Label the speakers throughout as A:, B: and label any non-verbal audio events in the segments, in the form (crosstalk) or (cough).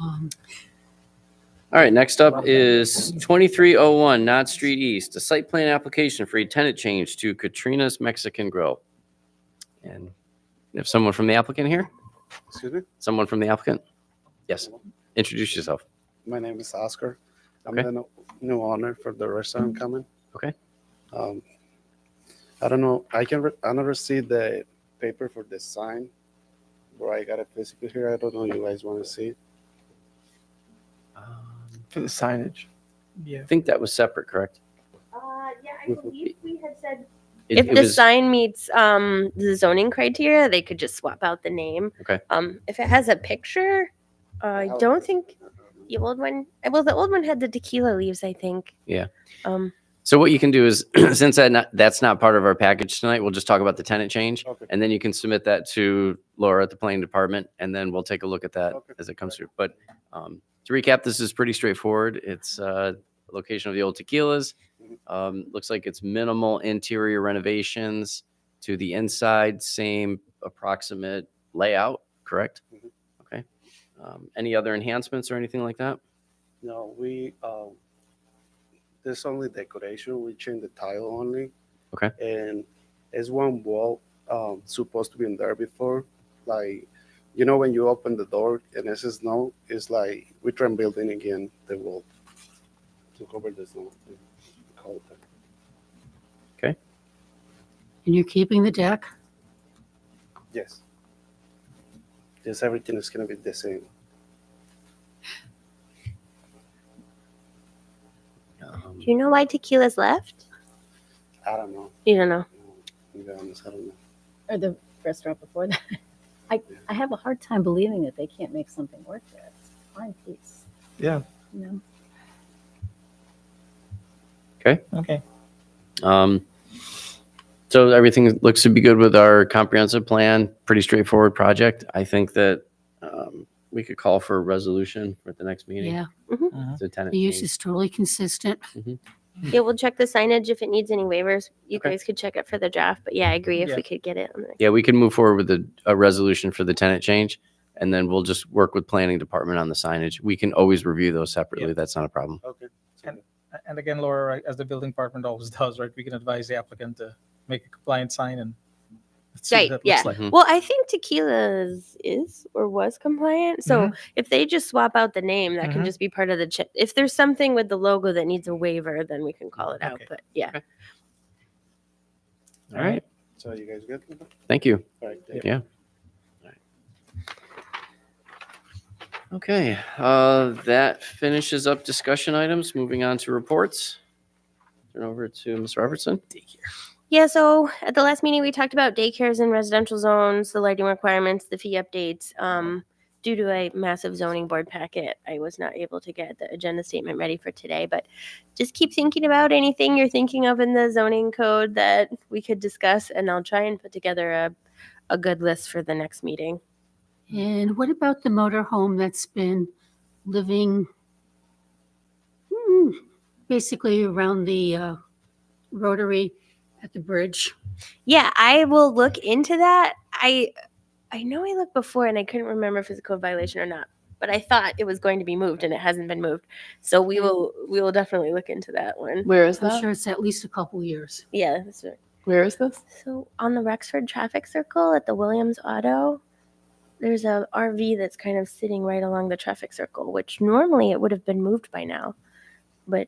A: Um,
B: All right, next up is 2301 Knott Street East, a site plan application for a tenant change to Katrina's Mexican Grill. And we have someone from the applicant here?
C: Excuse me?
B: Someone from the applicant? Yes, introduce yourself.
C: My name is Oscar. I'm
B: Okay.
C: the no- new owner for the restaurant coming.
B: Okay.
C: Um, I don't know, I can, re- I never see the paper for the sign where I got it physically here. I don't know you guys want to see it.
D: For the signage.
B: I
D: Yeah.
B: think that was separate, correct?
E: Uh, yeah, I believe we had said
B: It-
F: If
B: it
F: the
B: was-
F: sign meets um, the zoning criteria, they could just swap out the name.
B: Okay.
F: Um, if it has a picture, uh, I
C: How-
F: don't think the old one. eh, Well, the old one had the tequila leaves, I think.
B: Yeah.
F: Um,
B: So what you can do is, (clears throat) since that not, that's not part of our package tonight, we'll just talk about the tenant change.
C: Okay.
B: And then you can submit that to Laura at the planning department, and then we'll take a look at that
C: Okay.
B: as it comes through. But um, to recap, this is pretty straightforward. It's uh, location of the old tequilas.
C: Mhm.
B: Um, looks like it's minimal interior renovations to the inside, same approximate layout, correct?
C: Mhm.
B: Okay. Um, any other enhancements or anything like that?
C: No, we, uh, there's only decoration. We change the tile only.
B: Okay.
C: And there's one wall um, supposed to be in there before. Like, you know, when you open the door and it's snow, it's like we try and build in again the wall to cover the snow. Call it that.
A: and you're keeping the deck?
C: Yes. Yes, everything is going to be the same.
B: Um,
F: do you know why tequila's left?
C: I don't know.
F: You
B: (laughs)
F: don't know.
C: To be honest, I don't know.
A: Or the restaurant before that? (laughs) I, I have a hard time believing that they can't make something work there. It's a Fine piece.
D: Yeah.
A: You know?
D: Okay.
B: Um, so everything looks to be good with our comprehensive plan, pretty straightforward project. I think that, um, we could call for a resolution for the next meeting.
A: Yeah,
B: It's a tenant
A: the use
B: change.
A: is totally consistent.
F: Yeah, we'll check the signage if it needs any waivers. You
B: Okay.
F: guys could check it for the draft, but yeah, I agree. If
D: Yeah.
F: we could get it, on the next-
B: Yeah, we can move forward with a, a resolution for the tenant change and then we'll just work with planning department on the signage. We can always review those separately. That's not a problem.
C: Okay.
D: And again, Laura, right, as the building department always (laughs) does, right, we can advise the applicant to make a compliant sign and let's see
F: Right,
D: what that
F: yeah.
D: looks like.
B: Mhm.
F: Well, I think tequila's is or was compliant. So if they just swap out the name, that can
D: Mhm.
F: just be part of the. Ch- if there's something with the logo that needs a waiver, then we can call it out.
D: Okay.
F: But yeah,
B: All right.
C: So you guys good?
B: Thank you.
C: All right.
D: Yeah.
B: Okay, uh, that finishes up discussion items. Moving on to reports. Turn over to Ms. Robertson.
F: Yeah, so at the last meeting, we talked about daycares in residential zones, the lighting requirements, the fee updates. Um, due to a massive zoning board packet, I was not able to get the agenda statement ready for today, but just keep thinking about anything you're thinking of in the zoning code that we could discuss, and I'll try and put together a, a good list for the next meeting.
A: And what about the motor home that's been living hmm, basically around the uh, rotary at the bridge?
F: Yeah, I will look into that. I I know I looked before and I couldn't remember if it's a code violation or not, but I thought it was going to be moved and it hasn't been moved. So we will we will definitely look into that one.
G: Where is
A: I'm
G: that?
A: sure it's at least a couple years.
F: Yeah. that's right.
G: Where is this?
F: So on the Rexford traffic circle at the Williams Auto, there's a RV that's kind of sitting right along the traffic circle, which normally it would have been moved by now, but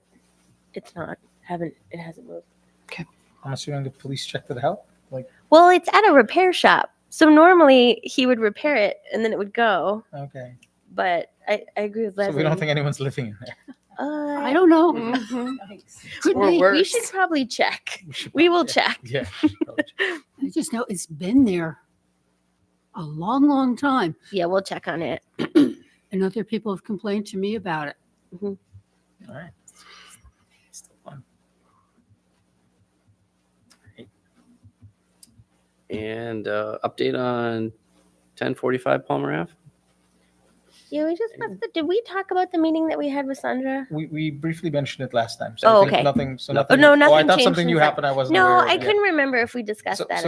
F: it's not. Haven't it hasn't moved.
D: I'm assuming the police checked it out. Like,
F: Well, it's at a repair shop. So normally he would repair it and then it would go.
D: okay.
F: but I, I agree with
D: So
F: Leslie.
D: we don't think anyone's living in (laughs) there.
F: uh,
A: I don't know. Could
G: Or
A: be.
G: worse.
F: we should probably check. We will check.
D: Yeah. we should probably check.
A: I just know it's been there a long, long time.
F: Yeah, we'll check on it.
A: And other people have complained to me about it.
D: All right. Still fun.
B: And uh, update on 1045 Palmer Ave?
F: Yeah, we just have to. Did we talk about the meeting that we had with Sandra?
D: We, we briefly mentioned it last time. So I
F: Oh,
D: think
F: okay.
D: Nothing, so
B: No-
D: nothing.
F: no,
D: I
F: nothing
D: thought
F: changed
D: something new
F: since I-
D: happened. I wasn't
F: No,
D: aware of.
F: I
D: Yeah.
F: couldn't remember if we discussed
D: So-
F: that.